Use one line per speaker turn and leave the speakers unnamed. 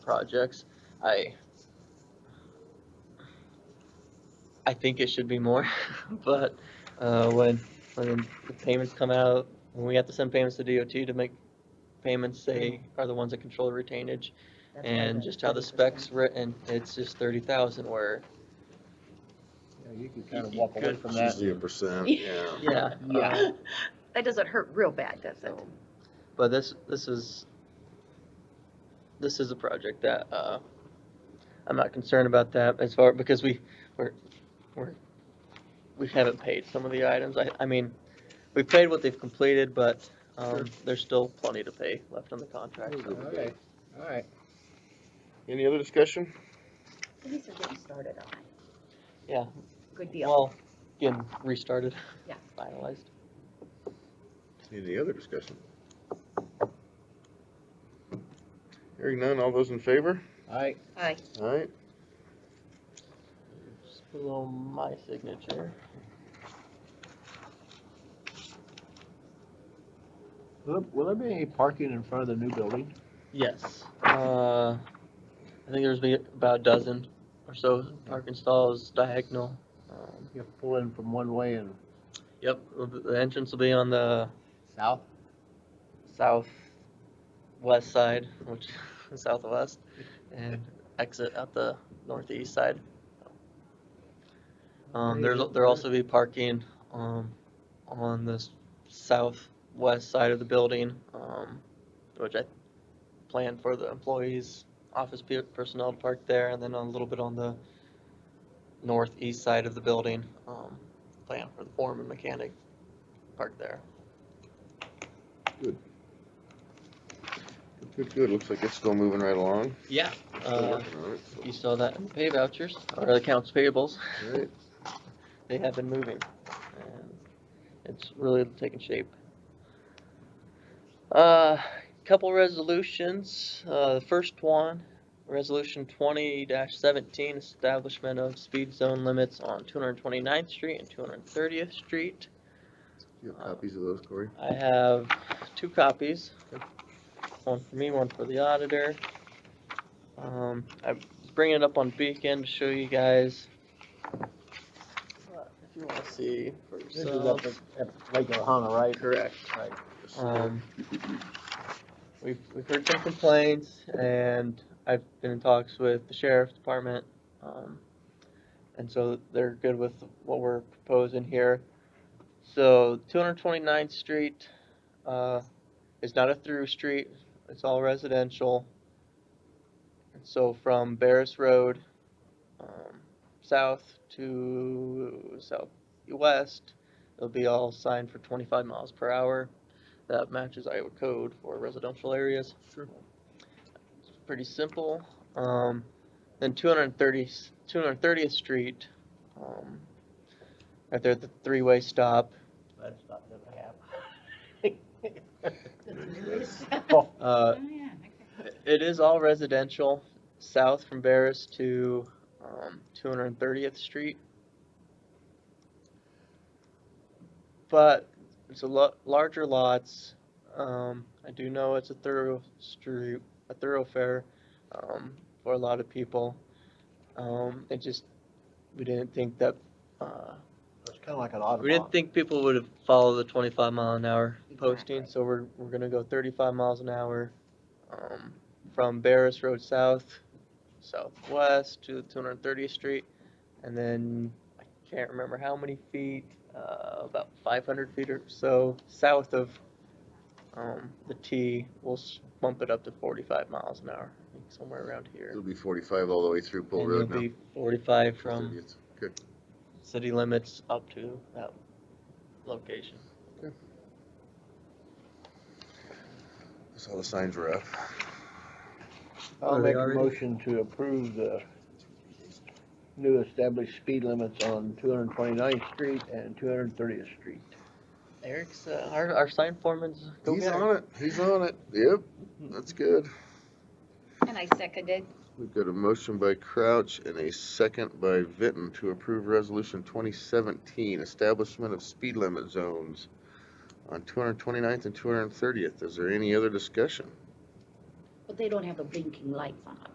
projects. I I think it should be more, but uh, when when the payments come out, when we have to send payments to DOT to make payments, they are the ones that control the retainage.
That's why
And just how the
30%.
specs written, it's just thirty thousand where,
Yeah, You could kind of
You
walk away
could-
from
It's
that.
usually a percent, yeah.
yeah. uh,
Yeah. That doesn't hurt real bad, does it?
So, But this, this is, this is a project that, uh, I'm not concerned about that as far, because we, we're, we're, we haven't paid some of the items, I, I mean, we paid what they've completed, but, um, there's still plenty to pay left on the contract. so-
Okay, all right.
Any other discussion?
At least we're getting started on it.
Yeah,
Good deal.
well, getting restarted.
Yeah.
Finalized.
Any other discussion?
Hearing none, all those in favor?
All right,
Aye.
Alright,
Just below my signature.
will, will there be any parking in front of the new building?
Yes, uh, I think there's be about a dozen or so parking stalls diagonal. Um,
You pull in from one way and
Yep, well, the- the entrance will be on the
south?
southwest side, which is southwest, and exit at the northeast side. Um, there's, there'll also be parking, um, on the s- southwest side of the building, um, which I plan for the employees, office pe- personnel to park there, and then a little bit on the northeast side of the building, um, plan for the foreman mechanic park there.
good, good, looks like it's still moving right along.
Yeah.
Still
Uh,
working on it, so,
You saw that in pay vouchers, or accounts payables,
alright.
they have been moving. and It's really taking shape. Uh, couple resolutions, uh, the first one, resolution twenty seventeen, establishment of speed zone limits on 229th street and two hundred and thirtieth street.
Do you have copies of those, Corey?
I have two copies, one for me, one for the auditor. Um, I was bringing it up on Beacon to show you guys. But If you wanna see for
This is up
yourselves.
at, at Lake Ohana, right?
Correct.
Right.
Um, we've, we've heard some complaints and I've been in talks with the sheriff's department. Um, and so they're good with what we're proposing here. So 229th Street, uh, is not a through street, it's all residential. And so from Barris Road, um, south to southwest, it'll be all signed for twenty-five miles per hour. That matches Iowa code for residential areas. Sure. It's pretty simple. Um, then 230 230th Street, um, right there at the three-way stop,
That's not gonna happen.
Oh,
Oh,
uh,
yeah,
It is all residential, south from Barris to, um, two hundred and thirtieth street. But it's a lot, larger lots, um, I do know it's a thorough street, a thoroughfare, um, for a lot of people. Um, it just, we didn't think that, uh,
It's kinda like an odd
we didn't think people would have followed the twenty-five mile an hour posting, so we're, we're gonna go thirty-five miles an hour. Um, from Barris Road South, southwest to two hundred and thirtieth street, and then I can't remember how many feet, uh, about five hundred feet or so south of, um, the T, we'll s- bump it up to forty-five miles an hour, I think somewhere around here.
It'll be forty-five all the way through Bull
And it'll
Road now.
be forty-five from
30th. Good,
city limits up to that location.
that's all the signs were up.
I'll
Are they
make a
already-
motion to approve the new established speed limits on 229th Street and 230th Street.
Eric's, uh, our, our sign foreman's. go
He's
getter.
on it, he's on it, yep, that's good.
And I seconded.
We've got a motion by Crouch and a second by Vinton to approve resolution twenty seventeen, establishment of speed limit zones on 229th and two hundred and thirtieth. Is there any other discussion?
But they don't have the blinking lights on.